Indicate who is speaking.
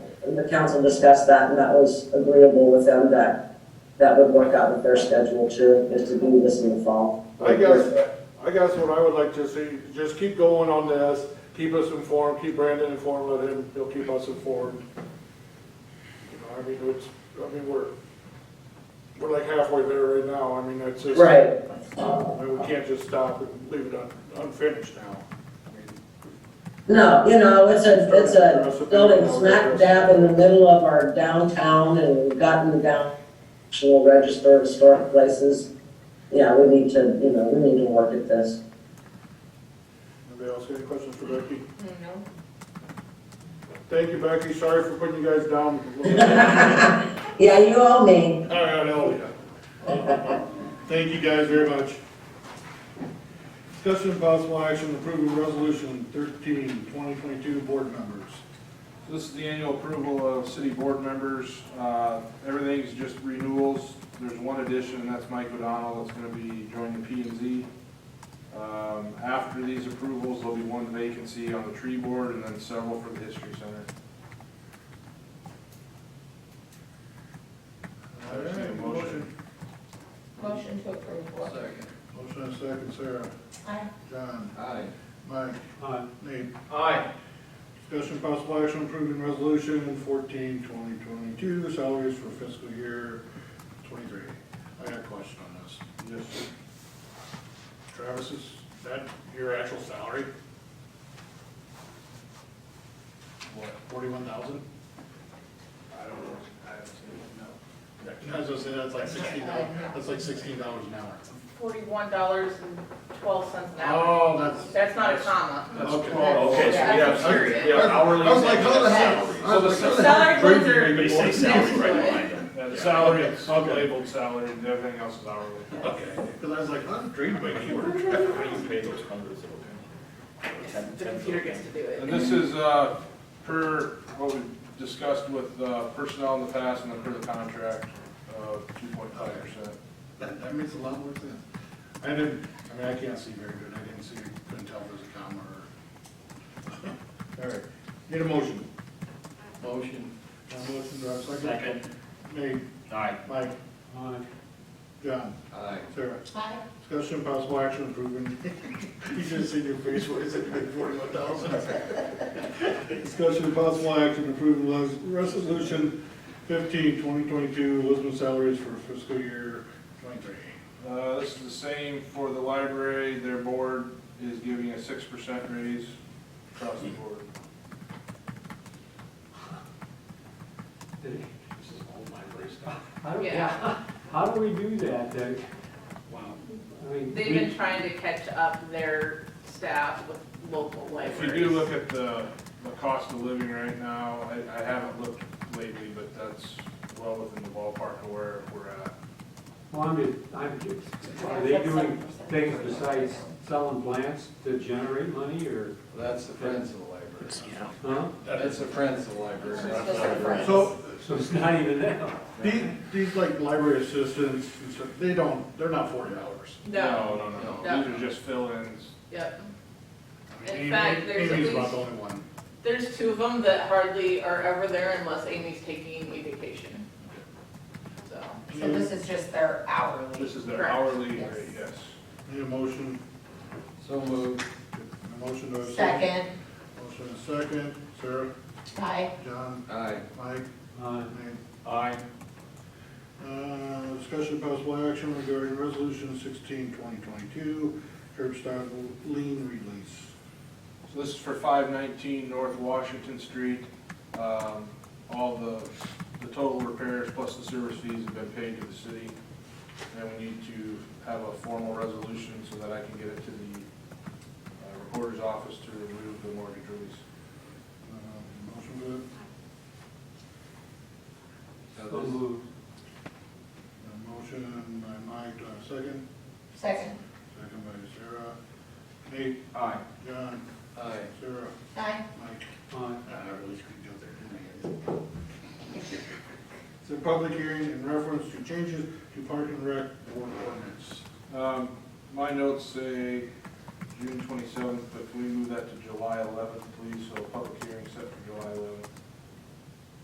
Speaker 1: the council discussed that, and that was agreeable with them that that would work out with their schedule too, is to do this in the fall.
Speaker 2: I guess, I guess what I would like to see, just keep going on this, keep us informed, keep Brandon informed, let him, he'll keep us informed. You know, I mean, it's, I mean, we're, we're like halfway there right now, I mean, it's just.
Speaker 1: Right.
Speaker 2: I mean, we can't just stop and leave it un- unfinished now. I mean,
Speaker 1: No, you know, it's a, it's a building smack dab in the middle of our downtown and we've gotten down to a register of historic places. Yeah, we need to, you know, we need to work at this.
Speaker 2: Anybody else got any questions for Becky?
Speaker 3: No.
Speaker 2: Thank you, Becky, sorry for putting you guys down. I
Speaker 1: Yeah, you owe me.
Speaker 2: got Elliot. Thank you guys very much. Discussion of possible action approving resolution 13, 2022 board members.
Speaker 4: This is the annual approval of city board members. Uh, Everything's just renewals. There's one addition, and that's Mike O'Donnell, that's going to be joining P and Z. Um, After these approvals, there'll be one vacancy on the tree board and then several for the history center. I entertain a motion.
Speaker 3: Motion to approve. what?
Speaker 5: Second.
Speaker 2: Motion and second, Sarah,
Speaker 3: Aye.
Speaker 2: John,
Speaker 5: Aye.
Speaker 2: Mike,
Speaker 6: Aye.
Speaker 2: Nate.
Speaker 5: Aye.
Speaker 2: Discussion of possible action approving resolution 14, 2022 salaries for fiscal year twenty-three. I got a question on this.
Speaker 4: Yes, sir.
Speaker 2: Travis, is that your actual salary? What, forty-one thousand?
Speaker 4: I don't know. I haven't seen
Speaker 2: I was gonna say, that's like sixteen dollars, that's like sixteen dollars an hour.
Speaker 3: Forty-one dollars and twelve cents an hour.
Speaker 2: Oh, that's.
Speaker 3: That's not a comma.
Speaker 4: it.
Speaker 2: Okay.
Speaker 3: Oh, okay, so we have-
Speaker 2: That's-
Speaker 3: Period.
Speaker 2: I was- I was like, how the hell? I was like, how the hell?
Speaker 3: Salary
Speaker 2: Breaking
Speaker 3: boards are-
Speaker 2: even
Speaker 7: They say
Speaker 2: more.
Speaker 7: salary right behind them.
Speaker 4: Yeah, the salary, it's labeled salary, and everything else is hourly.
Speaker 2: Okay, because I was like, I'm dreaming by keyword.
Speaker 7: How do you pay those hundreds of them?
Speaker 3: The computer gets to do it.
Speaker 4: And this is, uh, per what we discussed with, uh, personnel in the past and then per the contract, uh, two point five percent.
Speaker 2: That, that makes a lot more sense. I didn't, I mean, I can't see very good, I didn't see, couldn't tell if there's a comma or. All right, need a motion.
Speaker 5: Motion.
Speaker 2: Got a motion, do I have a second?
Speaker 7: Second.
Speaker 2: Nate,
Speaker 7: Aye.
Speaker 2: Mike,
Speaker 6: Aye.
Speaker 2: John,
Speaker 5: Aye.
Speaker 2: Sarah.
Speaker 3: Aye.
Speaker 2: Discussion of possible action approving, you just seen your face, what is it, forty-one thousand? Discussion of possible action approving res- resolution 15, 2022, Lisbon salaries for fiscal year twenty-three.
Speaker 4: Uh, this is the same for the library, their board is giving a six percent raise across the board.
Speaker 6: This is all library stuff.
Speaker 3: Yeah.
Speaker 6: How do we do that, that, wow, I mean.
Speaker 3: They've been trying to catch up their staff with local
Speaker 4: If
Speaker 3: libraries.
Speaker 4: you do look at the, the cost of living right now, I, I haven't looked lately, but that's well within the ballpark of where we're at.
Speaker 6: Well, I'm, just- I'm, just- are they doing things besides selling plants to generate money, or,
Speaker 5: That's the friends of the library.
Speaker 6: huh?
Speaker 5: That's the friends of the library. not the library.
Speaker 2: So,
Speaker 6: So it's not even that.
Speaker 2: these, these like library assistants, and stuff, they don't, they're not forty hours.
Speaker 3: No,
Speaker 4: No, no,
Speaker 3: No.
Speaker 4: no, these are just fill-ins.
Speaker 3: yep.
Speaker 2: I mean,
Speaker 3: In
Speaker 2: Amy-
Speaker 3: fact, there's at
Speaker 2: Amy's about
Speaker 3: least-
Speaker 2: the only one.
Speaker 3: There's two of them that hardly are ever there unless Amy's taking a vacation. So,
Speaker 8: So this is just their hourly.
Speaker 4: This is their
Speaker 3: Correct.
Speaker 4: hourly
Speaker 8: Yes.
Speaker 4: rate, yes.
Speaker 2: Need a motion,
Speaker 5: So moved.
Speaker 2: a motion to a second.
Speaker 8: Second,
Speaker 2: Motion and second, Sarah,
Speaker 8: aye,
Speaker 2: John,
Speaker 5: Aye.
Speaker 2: Mike,
Speaker 6: Uh,
Speaker 2: Nate.
Speaker 4: Aye.
Speaker 2: Uh, discussion of possible action regarding resolution sixteen, twenty twenty-two, curb stop lien release.
Speaker 4: So this is for five nineteen North Washington Street. Um, all the, the total repairs plus the service fees have been paid to the city. And we need to have a formal resolution so that I can get it to the uh, recorder's office to remove the mortgage release.
Speaker 2: Uh, Motion good,
Speaker 6: so moved.
Speaker 2: Uh, motion by Mike, do I have a second?
Speaker 8: second,
Speaker 2: Second by Sarah. Nate,
Speaker 4: Aye.
Speaker 2: John,
Speaker 5: Aye.
Speaker 2: Sarah,
Speaker 8: aye,
Speaker 2: Mike.
Speaker 6: Aye.
Speaker 2: Uh, I really screwed up there, didn't I? It's a public hearing in reference to changes to park and rec board ordinance.
Speaker 4: Um, my notes say June twenty-seventh, but can we move that to July eleventh, please? So public hearing set for July eleventh.